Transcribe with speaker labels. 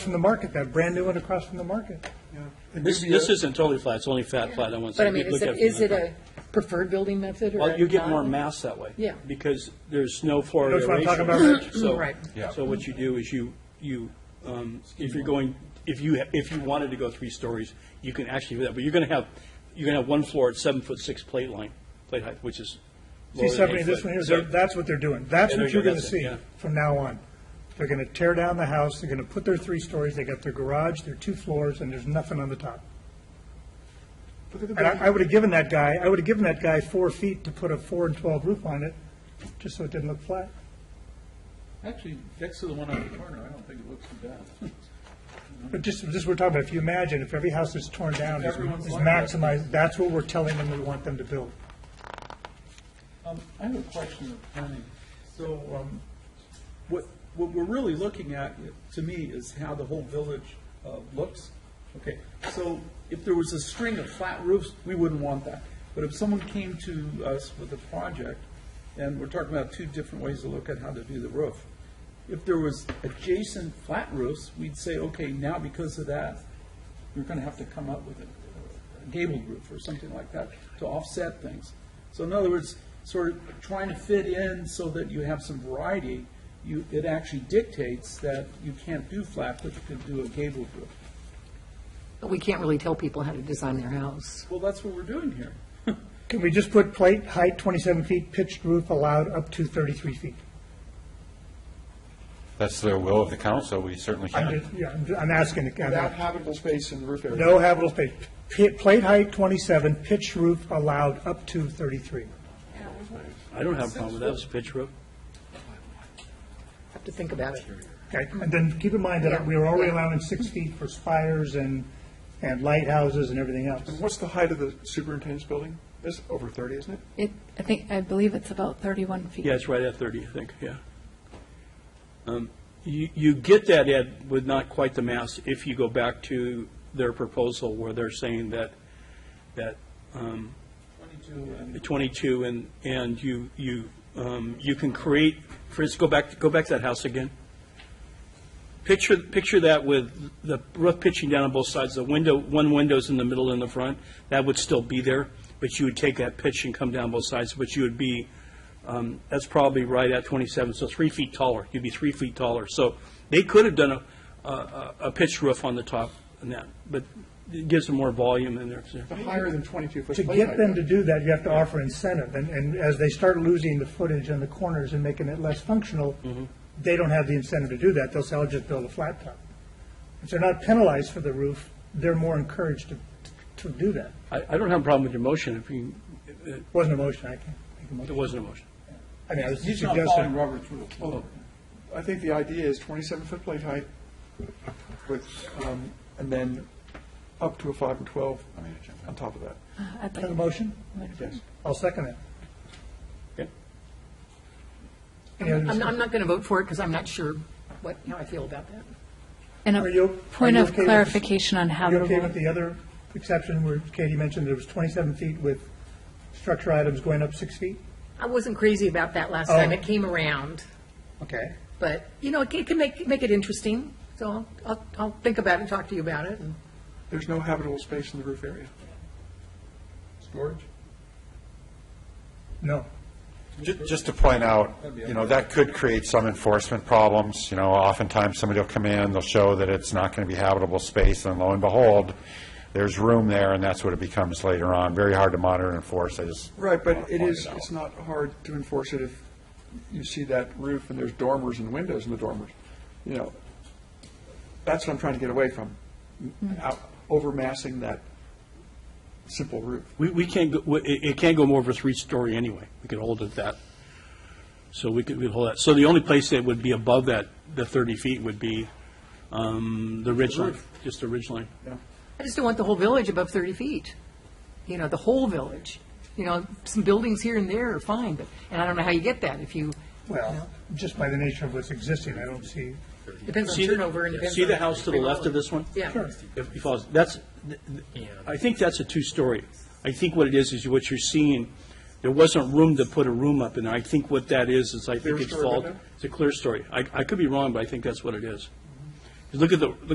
Speaker 1: from the market, that brand new one across from the market. It'd
Speaker 2: This,
Speaker 1: be a-
Speaker 2: this isn't totally flat, it's only fat flat on one
Speaker 3: But I
Speaker 2: side.
Speaker 3: mean,
Speaker 2: You look
Speaker 3: is
Speaker 2: at
Speaker 3: it,
Speaker 2: from
Speaker 3: is
Speaker 2: the
Speaker 3: it
Speaker 2: top.
Speaker 3: a preferred building method or
Speaker 2: Well, you get more
Speaker 3: not?
Speaker 2: mass that way.
Speaker 3: Yeah.
Speaker 2: Because there's no floor
Speaker 1: That's what I'm
Speaker 2: aeration.
Speaker 1: talking about, Rich.
Speaker 2: So-
Speaker 3: Right.
Speaker 4: Yeah.
Speaker 2: So what you do is you, you, um, if you're going, if you, ha- if you wanted to go three stories, you can actually do that, but you're going to have, you're going to have one floor at seven foot six plate line, plate height, which is
Speaker 1: See,
Speaker 2: lower than
Speaker 1: Stephanie,
Speaker 2: eight
Speaker 1: this
Speaker 2: foot.
Speaker 1: one here,
Speaker 2: So-
Speaker 1: they're- that's what they're doing. That's
Speaker 2: Yeah, there
Speaker 1: what
Speaker 2: you
Speaker 1: you're
Speaker 2: go,
Speaker 1: going to
Speaker 2: that's it,
Speaker 1: see
Speaker 2: yeah.
Speaker 1: from now on. They're going to tear down the house, they're going to put their three stories, they got their garage, their two floors, and there's nothing on the top. And I, I would have given that guy, I would have given that guy four feet to put a four and 12 roof on it, just so it didn't look flat.
Speaker 5: Actually, next to the one on the corner, I don't think it looks too bad.
Speaker 1: But just, just we're talking about, if you imagine, if every house that's torn down is
Speaker 5: Everyone's
Speaker 1: is
Speaker 5: like that.
Speaker 1: maximized, that's what we're telling them we want them to build.
Speaker 5: Um, I have a question of planning. So, um, what, what we're really looking at, to me, is how the whole village, uh, looks. Okay, so if there was a string of flat roofs, we wouldn't want that. But if someone came to us with a project, and we're talking about two different ways to look at how to do the roof. If there was adjacent flat roofs, we'd say, okay, now because of that, you're gonna have to come up with a gabled roof or something like that to offset things. So in other words, sort of trying to fit in so that you have some variety, you, it actually dictates that you can't do flat, but you can do a gabled roof.
Speaker 3: But we can't really tell people how to design their house.
Speaker 5: Well, that's what we're doing here.
Speaker 1: Can we just put plate height 27 feet, pitched roof allowed up to 33 feet?
Speaker 4: That's the will of the council, we certainly
Speaker 1: I'm
Speaker 4: can.
Speaker 1: just- yeah, I'm ju- I'm asking. the- I'm
Speaker 6: Without
Speaker 1: asking.
Speaker 6: habitable space in the roof area.
Speaker 1: No habitable space. P- Plate height 27, pitched roof allowed up to 33.
Speaker 2: I don't have a problem with that, it's a pitch roof.
Speaker 3: Have to think about it.
Speaker 1: Okay, and then keep in mind that we were already allowing six feet for spires and, and lighthouses and everything else.
Speaker 6: And What's the height of the superintendent's building? It's over 30, isn't it?
Speaker 7: It, I think, I believe it's about 31 feet.
Speaker 2: Yeah, it's right at 30, I think, yeah. Um, You, you get that, Ed, with not quite the mass, if you go back to their proposal where they're saying that, that um, 22 and, and you, you, um, you can create, Fritz, go back, go back to that house again. Picture, picture that with the roof pitching down on both sides, the window, one window's in the middle and the front, that would still be there, but you would take that pitch and come down both sides, but you would be, um, that's probably right at 27, so three feet taller, you'd be three feet taller. So they could have done a, a, a pitched roof on the top and that, but it gives them more volume in there. so.
Speaker 6: The Higher than 22 foot.
Speaker 1: To
Speaker 6: plate
Speaker 1: get
Speaker 6: height.
Speaker 1: them to do that, you have to offer incentive, and, and as they start losing the footage on the corners and making it less functional,
Speaker 5: Mm-hmm.
Speaker 1: they don't have the incentive to do that, they'll say, I'll just build a flat top. If they're not penalized for the roof, they're more encouraged to, to do that.
Speaker 2: I, I don't have a problem with your motion if you, it-
Speaker 1: Wasn't a motion, I can't make a
Speaker 2: it
Speaker 1: motion.
Speaker 2: wasn't a motion.
Speaker 1: I mean, I was
Speaker 5: He's not following
Speaker 1: suggesting,
Speaker 5: Robert's rules.
Speaker 6: I think the idea is 27 foot plate height with, um, and then up to a 5 and 12 on top of that.
Speaker 7: I'd like-
Speaker 1: have a motion?
Speaker 6: Yes.
Speaker 1: I'll second it.
Speaker 2: Okay.
Speaker 1: Any other
Speaker 3: I'm, I'm
Speaker 1: discussion?
Speaker 3: not going to vote for it because I'm not sure what, how I feel about that.
Speaker 7: And
Speaker 1: Are you-
Speaker 7: a
Speaker 1: are
Speaker 7: point
Speaker 1: you
Speaker 7: of
Speaker 1: okay with-
Speaker 7: clarification on
Speaker 1: Are you okay
Speaker 7: habitable.
Speaker 1: with the other exception where Katie mentioned there was 27 feet with structure items going up six feet?
Speaker 3: I wasn't crazy about that last time
Speaker 1: Oh.
Speaker 3: it came around,
Speaker 1: Okay.
Speaker 3: but, you know, it can- it can make, make it interesting. So I'll, I'll, I'll think about it and talk to you about it. and-
Speaker 6: There's no habitable space in the roof area.
Speaker 5: Storage?
Speaker 1: No.
Speaker 4: Ju- Just to point out, you know, that could create some enforcement problems, you know, oftentimes somebody will come in, they'll show that it's not going to be habitable space, and lo and behold, there's room there, and that's what it becomes later on, very hard to monitor and enforce, I just.
Speaker 6: Right,
Speaker 4: wanna
Speaker 6: but it
Speaker 4: point
Speaker 6: is,
Speaker 4: out.
Speaker 6: it's not hard to enforce it if you see that roof and there's dormers and windows in the dormers. You know, that's what I'm trying to get away from, out- overmassing that simple roof.
Speaker 2: We, we can't, go- we- it, it can't go more over three-story anyway. We could hold it at that. So we could, we'd hold that. So the only place that would be above that, the 30 feet would be, um, the ridge line, just the ridge line.
Speaker 3: I just don't want the whole village above 30 feet, you know, the whole village. You know, some buildings here and there are fine, but, and I don't know how you get that if you,
Speaker 1: Well, just by the nature of what's existing, I don't see,
Speaker 3: depends on
Speaker 2: See the-
Speaker 3: turnover and depends on.
Speaker 2: See the house to the left of this one?
Speaker 3: Yeah. Sure.
Speaker 2: If you follow- that's, th- th- I think that's a two-story. I think what it is, is what you're seeing, there wasn't room to put a room up in there. I think what that is, is I think it's
Speaker 6: story
Speaker 2: fault,
Speaker 6: window?
Speaker 2: it's a clear story. I, I could be wrong, but I think that's what it is. Look at the,